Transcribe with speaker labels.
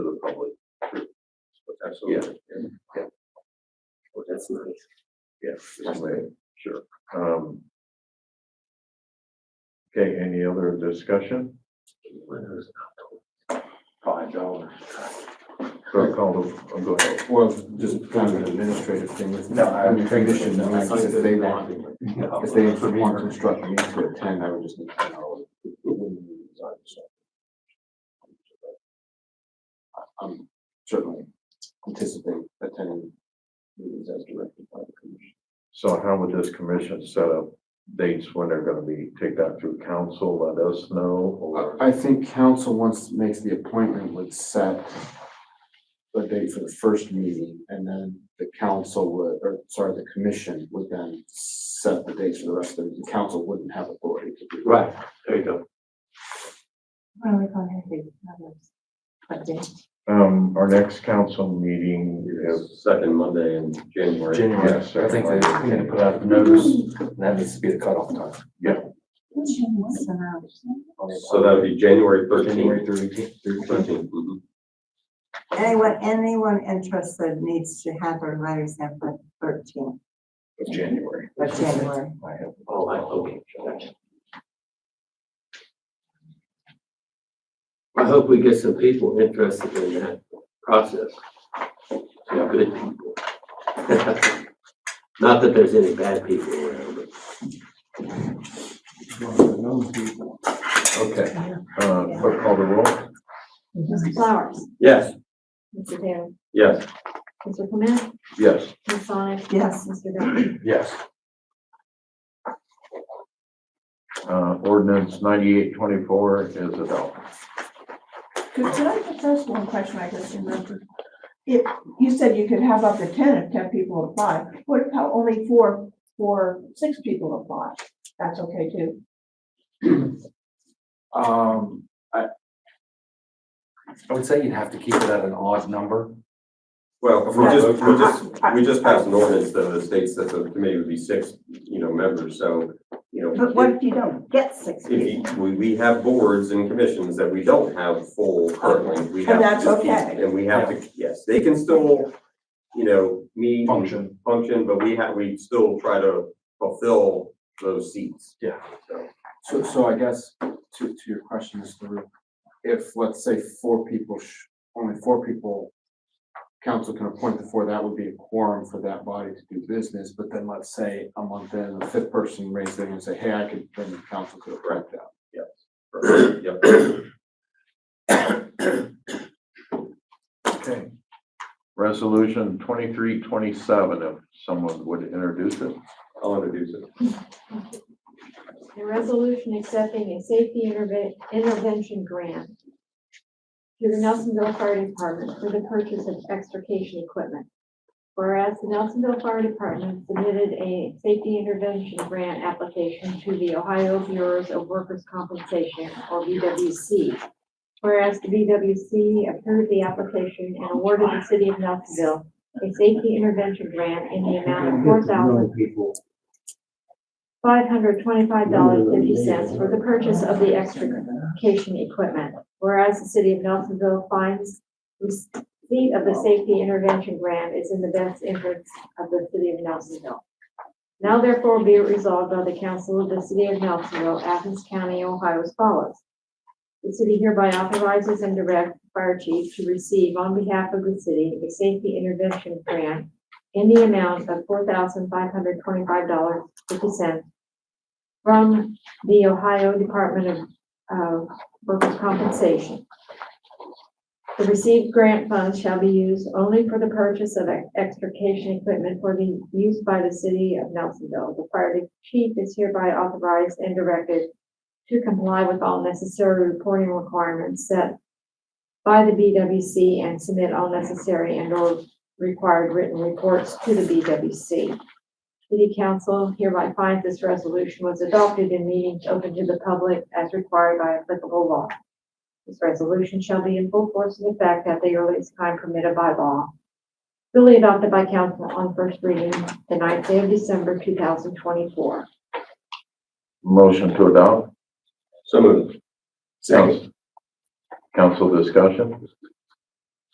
Speaker 1: absolutely.
Speaker 2: Well, That's nice.
Speaker 3: Yes, anyway, sure. Um. Okay, any other discussion?
Speaker 1: Five dollars.
Speaker 3: Clerk call the, oh, go ahead.
Speaker 4: Well, just kind of an administrative thing. It's-
Speaker 2: No,
Speaker 4: I mean, condition, I mean,
Speaker 2: Something
Speaker 4: if they
Speaker 2: that-
Speaker 4: want, if they want construction, you to attend, I would just need to know. I'm certainly anticipating attending meetings as directed by the commission.
Speaker 3: So how would this commission set up dates when they're gonna be, take that through council, let us know, or?
Speaker 4: I I think council, once makes the appointment, would set a date for the first meeting, and then the council would, or sorry, the commission would then set the dates for the rest of the, the council wouldn't have authority to do. that.
Speaker 2: Right, there you go.
Speaker 5: Why don't we go ahead and do others? What day?
Speaker 3: Um, our next council meeting is,
Speaker 1: Second Monday in January.
Speaker 2: January,
Speaker 3: Yes, sir.
Speaker 2: I think they need to put out a notice, and that needs to be the cutoff time.
Speaker 5: So now,
Speaker 1: So that would be January
Speaker 2: January
Speaker 1: thirteenth. mm-hmm.
Speaker 2: thirteenth,
Speaker 5: Anyone, anyone interested needs to have their letters in by thirteenth
Speaker 2: of January.
Speaker 5: of January.
Speaker 2: I have.
Speaker 1: Oh, I, okay. gotcha.
Speaker 6: I hope we get some people interested in that process. Some good people. Not that there's any bad people around, but
Speaker 3: okay, uh, clerk call the roll?
Speaker 7: Mr. Flowers,
Speaker 1: Yes,
Speaker 7: Mr. Taylor,
Speaker 1: yes,
Speaker 7: Mr. Clement,
Speaker 3: Yes,
Speaker 7: Ms. Sonic,
Speaker 5: Yes,
Speaker 7: Mr. Duffy.
Speaker 2: Yes.
Speaker 3: uh, ordinance ninety-eight twenty-four is adopted.
Speaker 8: Could could I just ask one question I just remembered? If, you said you could have up to ten if ten people apply, what if how only four, four, six people apply? That's okay too.
Speaker 2: Um, I. I would say you'd have to keep it at an odd number.
Speaker 1: well, we just, we just, we just passed an ordinance that the state says the committee would be six, you know, members, so, you know.
Speaker 5: but what if you don't get six
Speaker 1: If you,
Speaker 5: people?
Speaker 1: we, we have boards and commissions that we don't have full currently, we have.
Speaker 8: And
Speaker 1: to
Speaker 8: Oh, that's
Speaker 1: just keep-
Speaker 8: okay.
Speaker 1: And we have to, yes, they can still, you know, meet. and
Speaker 2: Function.
Speaker 1: Function, but we have, we still try to fulfill those seats.
Speaker 2: Yeah.
Speaker 1: So,
Speaker 4: So, so I guess to, to your question, Mr. Rue, if, let's say, four people, sh- only four people, council can appoint the four, that would be a quorum for that body to do business, but then let's say a month in, the fifth person raised their hand and say, hey, I could, then the council could appoint that.
Speaker 1: Yep.
Speaker 3: Okay. Resolution twenty-three twenty-seven, if someone would introduce it.
Speaker 1: I'll introduce it.
Speaker 7: A resolution accepting a safety interve- intervention grant to the Nelsonville Fire Department for the purchase of extrication equipment. Whereas the Nelsonville Fire Department submitted a safety intervention grant application to the Ohio Bureau of Workers' Compensation, or BWC. Whereas the BWC approved the application and awarded the city of Nelsonville a safety intervention grant in the amount of four thousand five hundred twenty-five dollars fifty cents for the purchase of the extrication equipment. Whereas the city of Nelsonville finds receipt of the safety intervention grant is in the best interest of the city of Nelsonville. Now therefore be it resolved by the council of the city of Nelsonville, Athens County, Ohio as follows. The city hereby authorizes and directs fire chief to receive on behalf of the city a safety intervention grant in the amount of four thousand five hundred twenty-five dollars fifty cents from the Ohio Department of, of Workers' Compensation. The received grant funds shall be used only for the purchase of extrication equipment for the use by the city of Nelsonville. The fire chief is hereby authorized and directed to comply with all necessary reporting requirements set by the BWC and submit all necessary and or required written reports to the BWC. City Council hereby finds this resolution was adopted in meetings open to the public as required by applicable law. This resolution shall be in full force and effect at the earliest time permitted by law. Duly adopted by council on first reading the ninth day of December, two thousand twenty-four.
Speaker 3: Motion to adopt.
Speaker 1: So moved.
Speaker 3: Council discussion?